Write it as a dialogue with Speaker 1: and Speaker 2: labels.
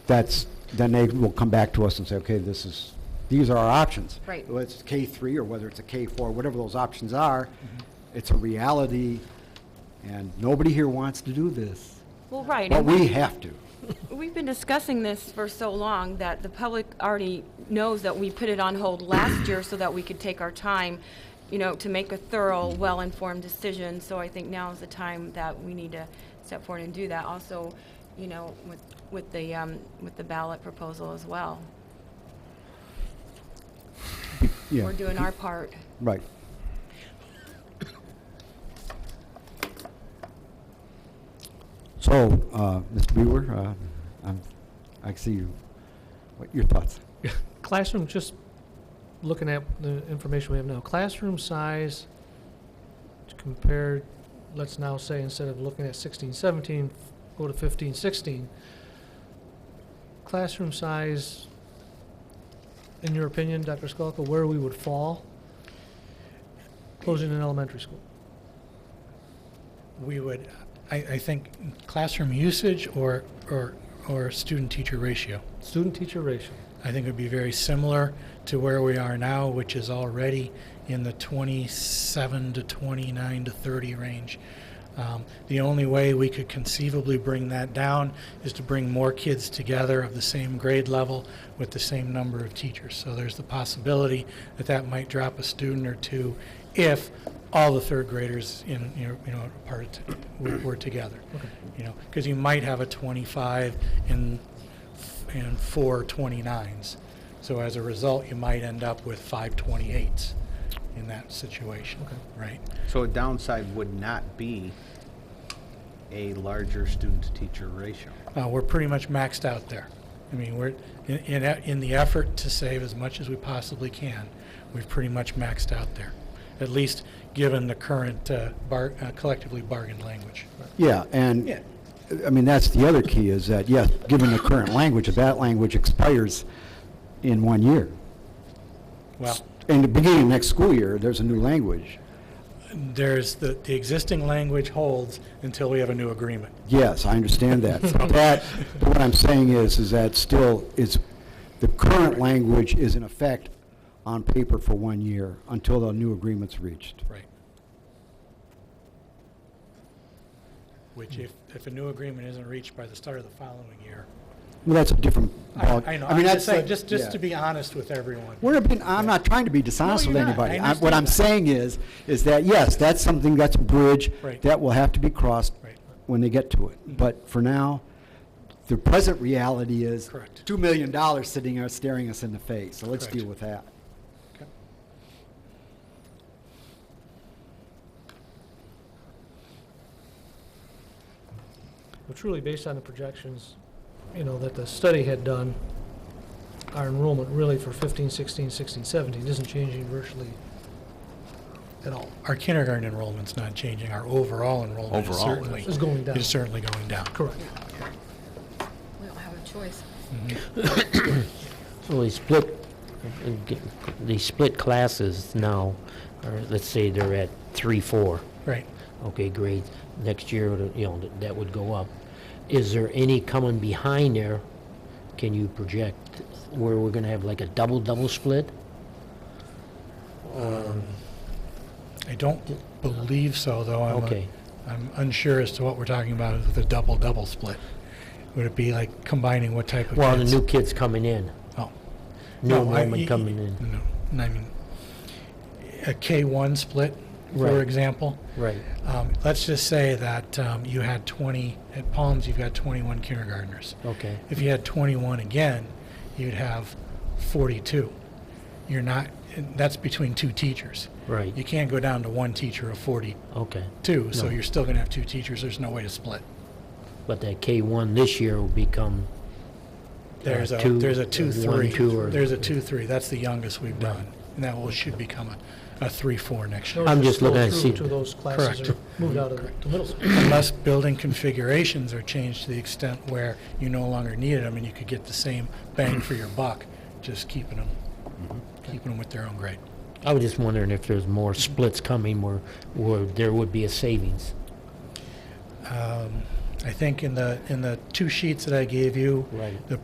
Speaker 1: that's, then they will come back to us and say, okay, this is, these are our options.
Speaker 2: Right.
Speaker 1: Whether it's K three or whether it's a K four, whatever those options are, it's a reality, and nobody here wants to do this,
Speaker 2: Well, right,
Speaker 1: but
Speaker 2: and
Speaker 1: we have to.
Speaker 2: we've been discussing this for so long that the public already knows that we put it on hold last year so that we could take our time, you know, to make a thorough, well-informed decision. So I think now is the time that we need to step forward and do that. Also, you know, with, with the, um, with the ballot proposal as well.
Speaker 1: Yeah,
Speaker 2: We're doing our part.
Speaker 1: Right. So, uh, Mr. Brewer, uh, I'm, I see you, what, your thoughts?
Speaker 3: Classroom, just looking at the information we have now, classroom size compared, let's now say, instead of looking at 16, 17, go to 15, 16. Classroom size, in your opinion, Dr. Skolka, where we would fall closing an elementary school?
Speaker 4: we would, I, I think classroom usage or, or, or student-teacher ratio.
Speaker 3: Student-teacher ratio.
Speaker 4: I think it would be very similar to where we are now, which is already in the 27 to 29 to 30 range. Um, the only way we could conceivably bring that down is to bring more kids together of the same grade level with the same number of teachers. So there's the possibility that that might drop a student or two if all the third graders in you know, you know part were, were together.
Speaker 3: Okay.
Speaker 4: You know, because you might have a 25 in and four 29s. So as a result, you might end up with five 28s in that situation,
Speaker 3: Okay.
Speaker 4: right?
Speaker 5: So a downside would not be a larger student-to-teacher ratio.
Speaker 4: Uh, we're pretty much maxed out there. I mean, we're, in, in, e- in the effort to save as much as we possibly can, we've pretty much maxed out there, at least given the current uh, bar, uh, collectively bargained language.
Speaker 1: Yeah, and,
Speaker 4: Yeah.
Speaker 1: I mean, that's the other key, is that, yes, given the current language, if that language expires in one year,
Speaker 4: Well,
Speaker 1: in the beginning of next school year, there's a new language.
Speaker 4: there's the, the existing language holds until we have a new agreement.
Speaker 1: Yes, I understand that. That, but what I'm saying is, is that still, it's, the current language is in effect on paper for one year until the new agreement's reached.
Speaker 4: Right. Which if, if a new agreement isn't reached by the start of the following year.
Speaker 1: Well, that's a different. ball-
Speaker 4: I, I know, I'm
Speaker 1: mean,
Speaker 4: just
Speaker 1: that's
Speaker 4: saying,
Speaker 1: a-
Speaker 4: just, just to
Speaker 1: yeah.
Speaker 4: be honest with everyone.
Speaker 1: We're being, I'm not trying to be dishonest
Speaker 4: No,
Speaker 1: with
Speaker 4: you're not.
Speaker 1: anybody.
Speaker 4: I
Speaker 1: I'm- What
Speaker 4: understand
Speaker 1: I'm
Speaker 4: that.
Speaker 1: saying is, is that, yes, that's something, that's a bridge
Speaker 4: Right.
Speaker 1: that will have to be crossed
Speaker 4: Right. Mm-hmm.
Speaker 1: when they get to it. But for now, the present reality is
Speaker 4: Correct.
Speaker 1: $2 million sitting there staring us in the face, so let's
Speaker 4: Correct.
Speaker 1: deal with that.
Speaker 4: Okay.
Speaker 3: But truly, based on the projections, you know, that the study had done, our enrollment really for 15, 16, 16, 17 isn't changing virtually at all.
Speaker 4: Our kindergarten enrollment's not changing, our overall enrollment is
Speaker 5: Overall,
Speaker 4: certainly.
Speaker 3: It's going down.
Speaker 4: Is certainly going down.
Speaker 3: Correct.
Speaker 2: We don't have a choice.
Speaker 6: Well, they split, they split classes now, or let's say they're at three, four,
Speaker 4: Right.
Speaker 6: okay, grades. Next year, you know, that would go up. Is there any coming behind there? Can you project where we're gonna have like a double, double split?
Speaker 4: I don't believe so, though. I'm, uh,
Speaker 6: Okay.
Speaker 4: I'm unsure as to what we're talking about with the double-double split. Would it be like combining what type of kids?
Speaker 6: Well, the new kids coming in,
Speaker 4: Oh.
Speaker 6: new
Speaker 4: No, I-
Speaker 6: enrollment
Speaker 4: y-
Speaker 6: coming in.
Speaker 4: No, and I mean, a K-1 split, for
Speaker 6: Right.
Speaker 4: example.
Speaker 6: Right,
Speaker 4: Um, Let's just say that um, you had 20, at Palms, you've got 21 kindergartners.
Speaker 6: okay,
Speaker 4: If you had 21 again, you'd have 42. You're not, and that's between two teachers.
Speaker 6: Right.
Speaker 4: You can't go down to one teacher of 42,
Speaker 6: okay.
Speaker 4: so
Speaker 6: No.
Speaker 4: you're still going to have two teachers. There's no way to split.
Speaker 6: But that K-1 this year will become,
Speaker 4: There's a,
Speaker 6: two-
Speaker 4: there's a two,
Speaker 6: one,
Speaker 4: three.
Speaker 6: two, or-
Speaker 4: There's a two, three. That's the youngest we've done. And that will, should become a, a three, four next year.
Speaker 6: I'm just looking at
Speaker 3: Those
Speaker 6: seat-
Speaker 3: two those classes are
Speaker 4: Correct.
Speaker 3: moved out of the to middle school.
Speaker 4: Unless building configurations are changed to the extent where you no longer need them and you could get the same bang for your buck, just keeping them,
Speaker 6: Mm-hmm.
Speaker 4: keeping them with their own grade.
Speaker 6: I was just wondering if there's more splits coming where, where there would be a savings.
Speaker 4: Um, I think in the, in the two sheets that I gave you,
Speaker 6: Right.
Speaker 4: the